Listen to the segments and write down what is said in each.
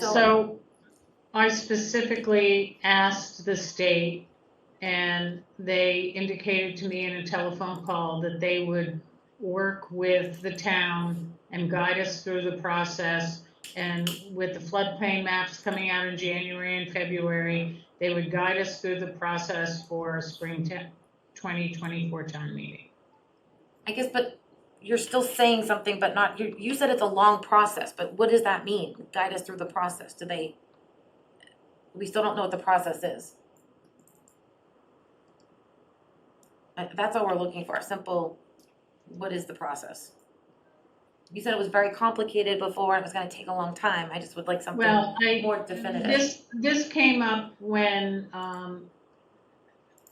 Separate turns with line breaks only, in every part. So I specifically asked the state and they indicated to me in a telephone call that they would work with the town and guide us through the process. And with the floodplain maps coming out in January and February, they would guide us through the process for spring te- 2024 town meeting.
I guess, but you're still saying something, but not, you, you said it's a long process, but what does that mean? Guide us through the process, do they? We still don't know what the process is. Uh, that's all we're looking for, a simple, what is the process? You said it was very complicated before, and it was gonna take a long time, I just would like something
Well, I,
more definitive.
This, this came up when, um,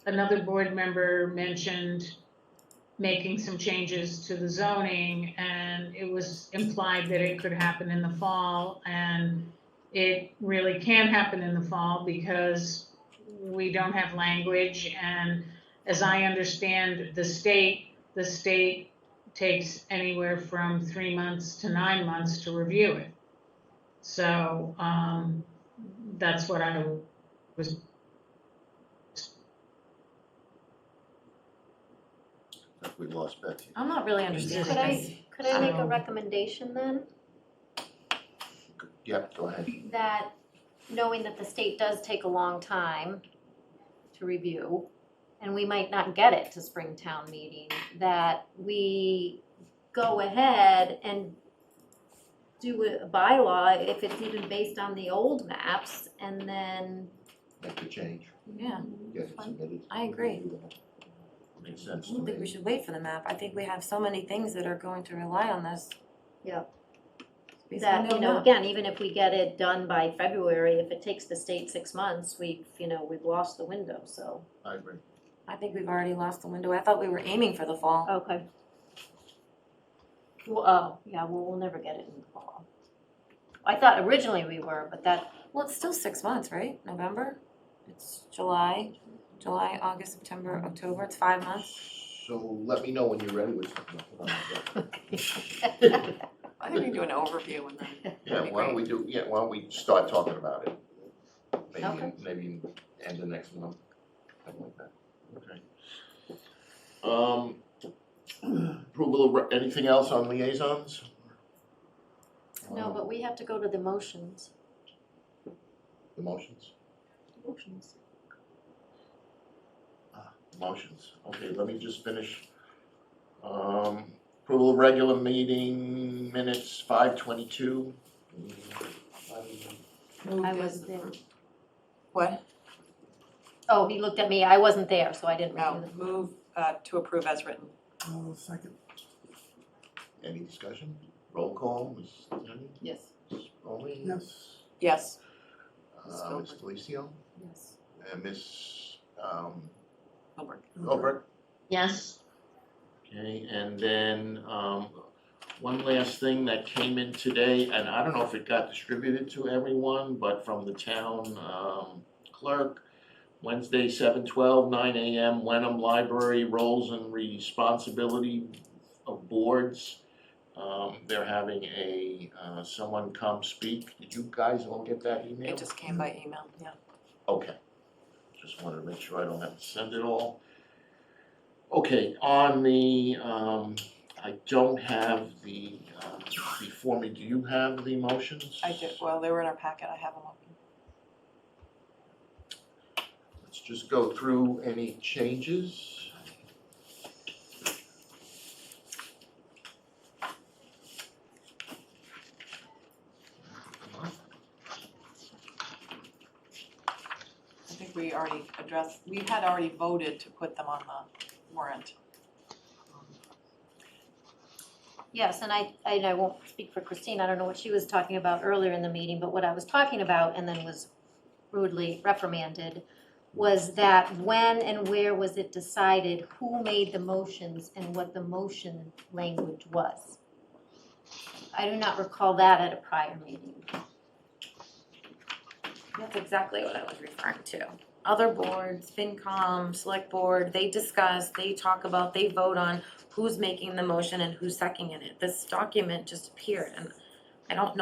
another board member mentioned making some changes to the zoning, and it was implied that it could happen in the fall, and it really can't happen in the fall because we don't have language, and as I understand the state, the state takes anywhere from three months to nine months to review it. So, um, that's what I was.
If we lost Betsy.
I'm not really understanding
Could I-
this.
Could I make
So-
Um,
a recommendation then,
Yep, go ahead.
that knowing that the state does take a long time to review, and we might not get it to spring town meeting, that we go ahead and do a bylaw if it's even based on the old maps, and then
Make the change.
Yeah,
Get it submitted.
I agree.
Makes sense
I
to
don't think we
me.
should wait for the map, I think we have so many things that are going to rely on this.
Yep.
Basically,
that,
no
you know,
map.
again, even if we get it done by February, if it takes the state six months, we've, you know, we've lost the window, so.
I agree.
I think we've already lost the window. I thought we were aiming for the fall.
Okay. Well, oh, yeah, well, we'll never get it in the fall. I thought originally we were, but that,
Well, it's still six months, right? November? It's July, July, August, September, October. It's five months.
So let me know when you're ready with something. Hold on a second.
I think we can do an overview and then.
Yeah, why don't we do, yeah, why don't we start talking about it? Maybe,
Okay.
maybe end of next month, something like that. Okay. Um, approval of, re- anything else on liaisons?
no,
Um,
but we have to go to the motions.
The motions?
Motions.
Motions, okay, let me just finish. Um, approval of regular meeting minutes, five twenty-two.
I wasn't there.
What?
Oh, he looked at me, I wasn't there, so I didn't
No,
review them.
Oh, move uh, to approve as written.
Oh, second. Any discussion? Roll call, Ms. Tenney,
Yes.
Ms. Rowling? Yes.
Yes.
Uh, Ms. Uh, Felicio,
Yes.
and Ms. um,
Homework.
Gilbert?
Yes.
Okay, and then, um, one last thing that came in today, and I don't know if it got distributed to everyone, but from the town, um, clerk. Wednesday, seven twelve, nine AM, Wenham Library Roles and Responsibility of Boards. Um, they're having a, uh, someone come speak. Did you guys all get that email?
It just came by email, yeah.
Okay, just wanted to make sure I don't have to send it all. Okay, on the, um, I don't have the, um, before me, do you have the motions?
I did, well, they were in our packet, I have them open.
Let's just go through any changes.
I think we already addressed, we had already voted to put them on the warrant.
Yes, and I, and I won't speak for Christine, I don't know what she was talking about earlier in the meeting, but what I was talking about and then was rudely reprimanded was that when and where was it decided who made the motions and what the motion language was? I do not recall that at a prior meeting.
That's exactly what I was referring to. Other boards, FinCom, Select Board, they discuss, they talk about, they vote on who's making the motion and who's seconding it. This document just appeared and I don't know